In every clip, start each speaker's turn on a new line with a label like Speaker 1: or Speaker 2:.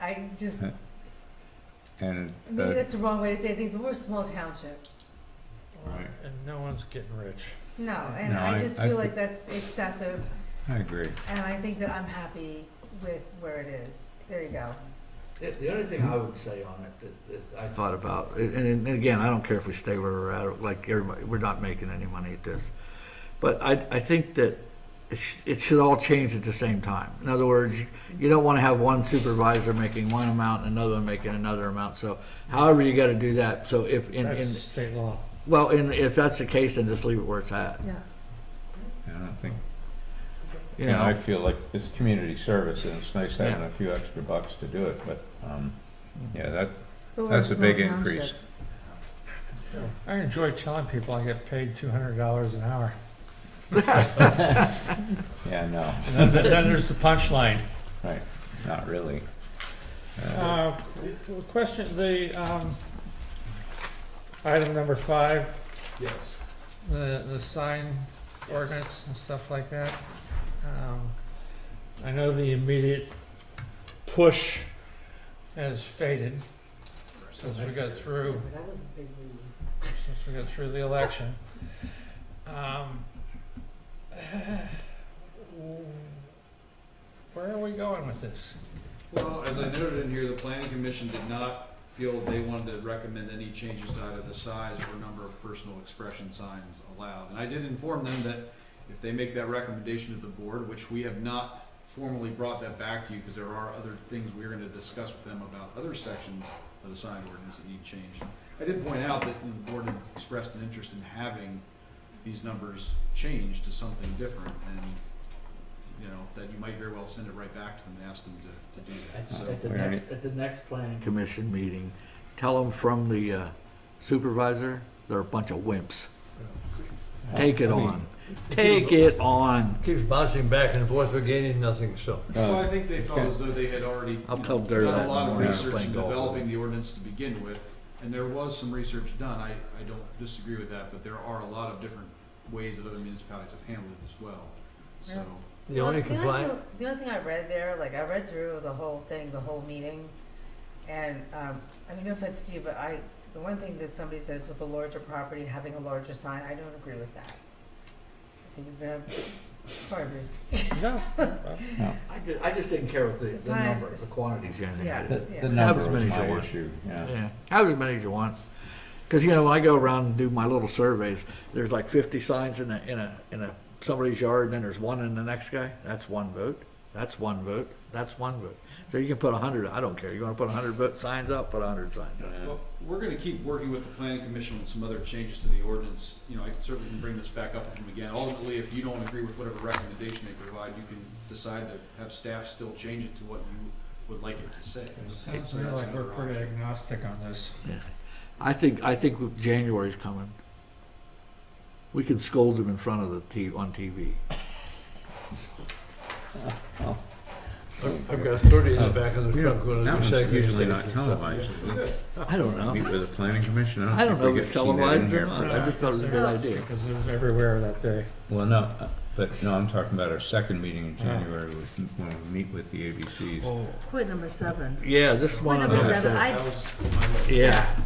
Speaker 1: I just,
Speaker 2: Yeah. and
Speaker 1: maybe
Speaker 2: uh,
Speaker 1: that's the wrong way to say things, but we're a small township.
Speaker 2: Right.
Speaker 3: And no one's getting rich.
Speaker 1: No, and
Speaker 2: No,
Speaker 1: I
Speaker 2: I-
Speaker 1: just
Speaker 2: I
Speaker 1: feel
Speaker 2: fe-
Speaker 1: like that's excessive,
Speaker 2: I agree.
Speaker 1: and I think that I'm happy with where it is. There you go.
Speaker 4: The- The only thing I would say on it that, that I thought about, and, and again, I don't care if we stay where we're at, like everybody, we're not making any money at this. But I, I think that it, sh- it should all change at the same time. In other words, you don't want to have one supervisor making one amount and another one making another amount. So however you got to do that, so if, in,
Speaker 3: That's
Speaker 4: in,
Speaker 3: state law.
Speaker 4: well, in, if that's the case, then just leave it where it's at,
Speaker 1: Yeah.
Speaker 2: I don't think,
Speaker 4: you
Speaker 2: you know, I
Speaker 4: know?
Speaker 2: feel like it's community service and it's nice having
Speaker 4: Yeah.
Speaker 2: a few extra bucks to do it, but, um, yeah, that,
Speaker 1: But we're
Speaker 2: that's a
Speaker 1: small
Speaker 2: big
Speaker 1: township.
Speaker 2: increase.
Speaker 3: I enjoy telling people I get paid two hundred dollars an hour.
Speaker 2: Yeah, no,
Speaker 3: And then, then there's the punchline.
Speaker 2: right, not really. Uh,
Speaker 3: Uh, the question, the, um, item number five,
Speaker 5: Yes.
Speaker 3: the, the sign
Speaker 5: Yes.
Speaker 3: ordinance and stuff like that. Um, I know the immediate push has faded since we got through
Speaker 1: That was a big move.
Speaker 3: since we got through the election. Um, where are we going with this?
Speaker 5: Well, as I noted in here, the planning commission did not feel they wanted to recommend any changes to either the size or number of personal expression signs allowed. And I did inform them that if they make that recommendation to the board, which we have not formally brought that back to you, because there are other things we're gonna discuss with them about other sections of the sign ordinance that need changed. I did point out that the board had expressed an interest in having these numbers changed to something different, and, you know, that you might very well send it right back to them and ask them to, to do that,
Speaker 4: At
Speaker 5: so.
Speaker 4: at the
Speaker 2: All right.
Speaker 4: next, at the next planning commission meeting, tell them from the uh, supervisor, they're a bunch of wimps. Take it
Speaker 2: I mean,
Speaker 4: on. Take it on.
Speaker 6: Keeps bouncing back and forth, we're gaining nothing, so.
Speaker 2: uh,
Speaker 5: Well, I think they felt as though they had already. you
Speaker 4: I'll
Speaker 5: know,
Speaker 4: tell Dirk
Speaker 5: Done
Speaker 4: that
Speaker 5: a lot of
Speaker 4: when we're
Speaker 5: research in
Speaker 4: playing golf.
Speaker 5: developing the ordinance to begin with, and there was some research done, I, I don't disagree with that, but there are a lot of different ways that other municipalities have handled it as well, so.
Speaker 6: The only
Speaker 1: Well,
Speaker 6: compliant,
Speaker 1: thing- The only thing I read there, like I read through the whole thing, the whole meeting, and um, I mean, no offense to you, but I, the one thing that somebody says with a larger property having a larger sign, I don't agree with that. I think you've been, sorry, Bruce.
Speaker 3: No.
Speaker 4: I just, I just didn't care with
Speaker 1: It's
Speaker 4: the, the
Speaker 1: not as-
Speaker 4: number, the quantities or anything.
Speaker 1: Yeah.
Speaker 2: The,
Speaker 1: Yeah.
Speaker 2: the
Speaker 4: Have
Speaker 2: number
Speaker 4: as
Speaker 2: was
Speaker 4: many as you
Speaker 2: my
Speaker 4: want.
Speaker 2: issue, yeah.
Speaker 4: Yeah, have as many as you want. Because, you know, I go around and do my little surveys, there's like fifty signs in a, in a, in a, somebody's yard, and then there's one in the next guy, that's one vote, that's one vote, that's one vote. So you can put a hundred, I don't care, you wanna put a hundred vote signs up, put a hundred signs up.
Speaker 5: Well, we're gonna keep working with the planning commission on some other changes to the ordinance, you know, I certainly can bring this back up with them again. Ultimately, if you don't agree with whatever recommendation they provide, you can decide to have staff still change it to what you would like it to say.
Speaker 3: It sounds
Speaker 5: So that's
Speaker 3: like we're
Speaker 5: another
Speaker 3: pretty
Speaker 5: option.
Speaker 3: agnostic on this.
Speaker 4: I think, I think January's coming. We can scold them in front of the T, on TV.
Speaker 6: I've I've got thirty in the back of the
Speaker 2: We
Speaker 6: truck.
Speaker 2: don't,
Speaker 6: going to
Speaker 2: that
Speaker 6: the
Speaker 2: one's
Speaker 6: second
Speaker 2: usually
Speaker 6: station,
Speaker 2: not
Speaker 6: so-
Speaker 2: televised.
Speaker 4: I don't know.
Speaker 2: Meet with the planning commission,
Speaker 4: I
Speaker 2: I
Speaker 4: don't
Speaker 2: don't
Speaker 4: know
Speaker 2: think
Speaker 4: if
Speaker 2: we
Speaker 4: it's
Speaker 2: get seen that
Speaker 4: televised or
Speaker 2: in here.
Speaker 4: not.
Speaker 2: for-
Speaker 4: I just thought it was a good idea.
Speaker 3: Uh, Because it was everywhere that day.
Speaker 2: Well, no, uh, but, no, I'm talking about our second meeting in
Speaker 3: Oh.
Speaker 2: January with, when we meet with the ABCs.
Speaker 1: Point number seven.
Speaker 4: Yeah, this is one of
Speaker 1: Number
Speaker 4: them.
Speaker 2: number
Speaker 1: seven,
Speaker 4: so-
Speaker 1: I,
Speaker 4: Yeah.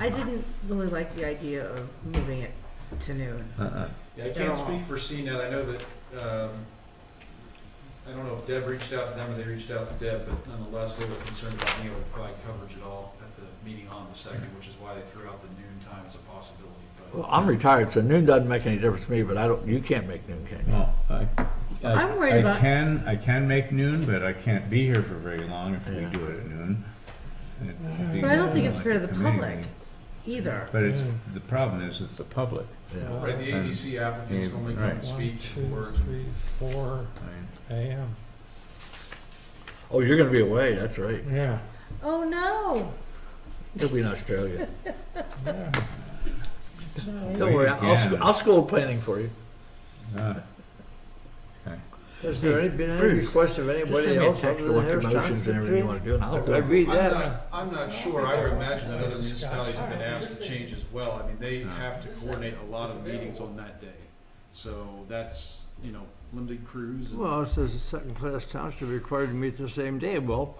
Speaker 1: I didn't really like the idea of moving it to noon.
Speaker 2: Uh-uh.
Speaker 5: Yeah, I can't
Speaker 1: Yeah.
Speaker 5: speak for CNET, I know that, um, I don't know if Deb reached out to them or they reached out to Deb, but nonetheless, they were concerned about being able to provide coverage at all at the meeting on the second, which is why they threw out the noon time as a possibility, but.
Speaker 4: Well, I'm retired, so noon doesn't make any difference to me, but I don't, you can't make noon, can you?
Speaker 2: No, I, I,
Speaker 1: I'm worried
Speaker 2: I
Speaker 1: about-
Speaker 2: can, I can make noon, but I can't be here for very long if we
Speaker 4: Yeah.
Speaker 2: do it at noon. It'd be
Speaker 1: Mm-hmm. But I don't think it's
Speaker 2: like
Speaker 1: fair to
Speaker 2: a
Speaker 1: the
Speaker 2: committee
Speaker 1: public.
Speaker 2: meeting.
Speaker 1: Either.
Speaker 2: But it's,
Speaker 3: Mm.
Speaker 2: the problem is, it's the public.
Speaker 4: Yeah.
Speaker 5: Right, the ABC applicants
Speaker 2: Yeah,
Speaker 5: normally come and
Speaker 2: right.
Speaker 5: speak
Speaker 3: One,
Speaker 5: or,
Speaker 3: two, three, four
Speaker 2: I mean,
Speaker 3: AM.
Speaker 4: Oh, you're gonna be away, that's right.
Speaker 3: Yeah,
Speaker 1: Oh, no.
Speaker 4: You'll be in Australia.
Speaker 3: yeah. So,
Speaker 4: Don't worry, I'll, sc- I'll school planning for you.
Speaker 2: uh,
Speaker 6: Has there any- been any
Speaker 4: Bruce,
Speaker 6: request of
Speaker 4: Just
Speaker 6: anybody
Speaker 4: send me a
Speaker 6: else other
Speaker 4: text
Speaker 6: than
Speaker 4: of what
Speaker 6: hair
Speaker 4: your motions and everything you wanna do, and I'll do
Speaker 6: I
Speaker 4: it.
Speaker 6: read
Speaker 5: I'm
Speaker 6: that.
Speaker 5: not, I'm not sure, I would imagine that other municipalities have been asked to change as well, I mean, they have to coordinate a lot of meetings on that day. So that's, you know, limited crews and.
Speaker 6: Well, it says a second-class township required to meet the same day. Well,